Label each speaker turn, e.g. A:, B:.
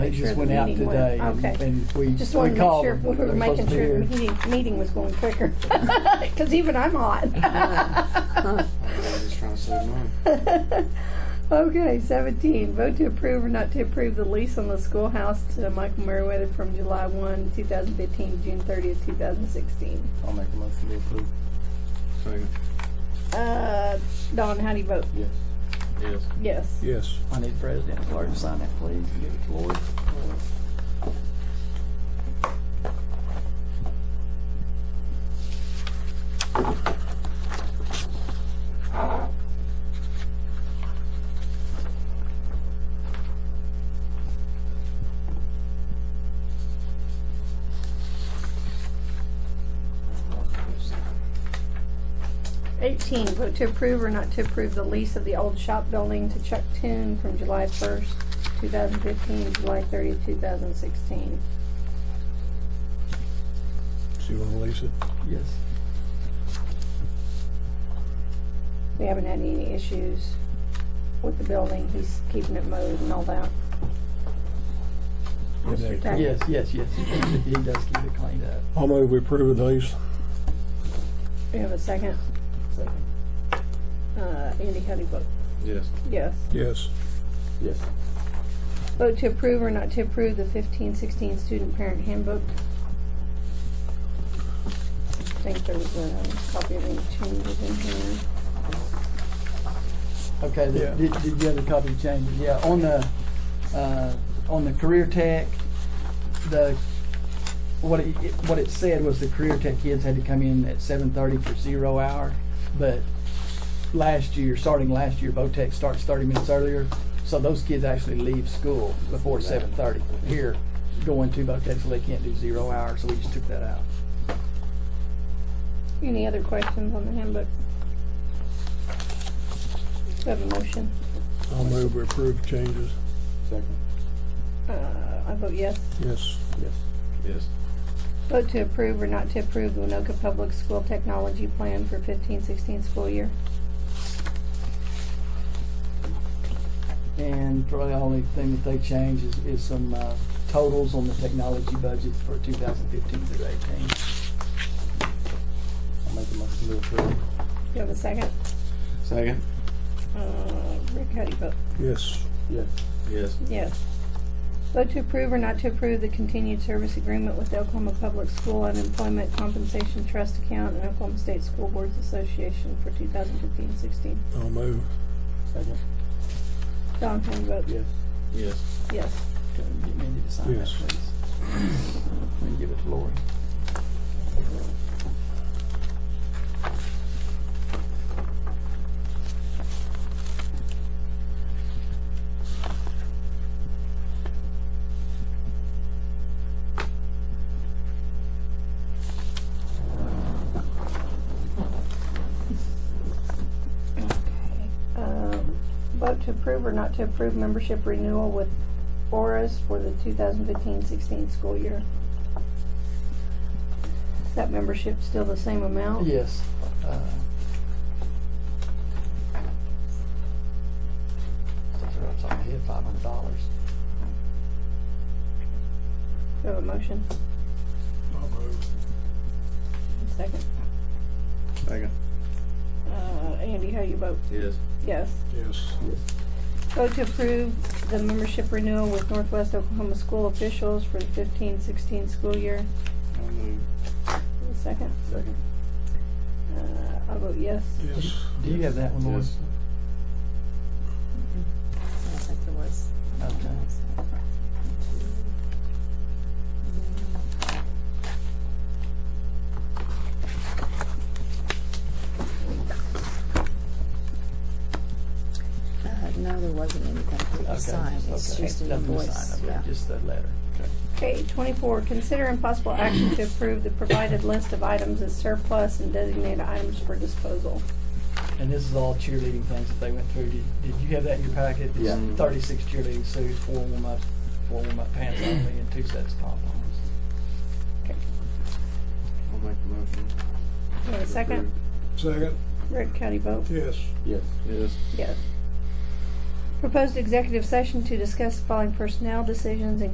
A: They just went out
B: meeting went-
A: today
B: okay.
A: and we,
B: Just
A: we
B: wanted to make
A: called
B: sure
A: them.
B: we were
A: They're
B: making
A: supposed to be
B: sure the
A: here.
B: meeting, meeting was going quicker. Because even I'm hot.
C: I'm just trying to save money.
B: Okay, seventeen, vote to approve or not to approve the lease on the schoolhouse to Michael Meriwether from July one, two thousand fifteen, to June thirtieth, two thousand sixteen.
A: I'll make a motion to approve.
C: Second.
B: Uh, Don, how do you vote?
A: Yes.
C: Yes.
B: Yes.
D: Yes.
A: I need President Clark to sign that, please. Give it to Lori.
B: Eighteen, vote to approve or not to approve the lease of the old shop building to Chuck Toon from July first, two thousand fifteen, to July thirtieth, two thousand sixteen.
D: So you want to lease it?
A: Yes.
B: We haven't had any issues with the building. He's keeping it mowed and all that. Thank you.
A: Yes, yes, yes. He does keep it cleaned up.
D: I'll move we approve of these.
B: Do you have a second?
A: Second.
B: Uh, Andy, how do you vote?
C: Yes.
B: Yes.
D: Yes.
A: Yes.
B: Vote to approve or not to approve the fifteen sixteen student parent handbook. I think there was a copy of any changes in here.
A: Okay,
D: Yeah.
A: the- did, did you have the copy of changes? Yeah, on the, uh, on the career tech, the, what it, it- what it said was the career tech kids had to come in at seven thirty for zero hour. But last year, starting last year, VOTEC starts thirty minutes earlier, so those kids actually leave school before seven thirty. Here, going to VOTEC, so they can't do zero hour, so we just took that out.
B: Any other questions on the handbook? Do I have a motion?
D: I'll move we approve changes.
A: Second.
B: Uh, I vote yes.
D: Yes.
A: Yes.
C: Yes.
B: Vote to approve or not to approve the Winoka Public School Technology Plan for 15-16 school year.
A: And probably the only thing that they changed is, is some uh, totals on the technology budget for 2015 through 18. I'll make a motion to approve.
B: Do you have a second?
C: Second.
B: Uh, Rick, how do you vote?
D: Yes.
A: Yes.
C: Yes.
B: Yes. Vote to approve or not to approve the continued service agreement with the Oklahoma Public School Unemployment Compensation Trust Account and Oklahoma State School Boards Association for 2015-16.
D: I'll move.
A: Second.
B: Don, how do you vote?
A: Yes.
C: Yes.
B: Yes.
A: Okay, Get Mindy to sign that,
D: Yes.
A: please. And give it to Lori.
B: Okay. Um, Vote to approve or not to approve membership renewal with ORAS for the 2015-16 school year. Is that membership still the same amount?
A: Yes. uh, that's right off the top of my head, $500.
B: Do you have a motion?
D: I'll move.
B: A Second.
C: Second.
B: Uh, Andy, how you vote?
C: Yes.
B: Yes.
D: Yes.
B: Vote to approve the membership renewal with Northwest Oklahoma School officials for the 15-16 school year.
C: I'll move.
B: A Second.
A: Second.
B: Uh, I'll vote yes.
D: Yes.
A: Do you have that one, Lori?
C: Yes.
E: I don't think there was.
A: Okay.
E: Uh, no, there wasn't anything
A: Okay,
E: to sign, it's
A: okay.
E: just an
A: Nothing to sign,
E: invoice,
A: okay,
E: yeah.
A: Just the letter.
B: Okay, twenty-four, consider impossible action to approve the provided list of items as surplus and designate items for disposal.
A: And this is all cheerleading things that they went through. Did, did you have that in your packet?
C: Yeah.
A: It's Thirty-six cheerleading suits, four warm-up, four warm-up pants only, and two sets of pom-poms.
C: I'll make the motion.
B: Do you have a second?
D: Second.
B: Rick, how do you vote?
D: Yes.
C: Yes. Yes.
B: Yes. Proposed executive session to discuss the following personnel decisions, including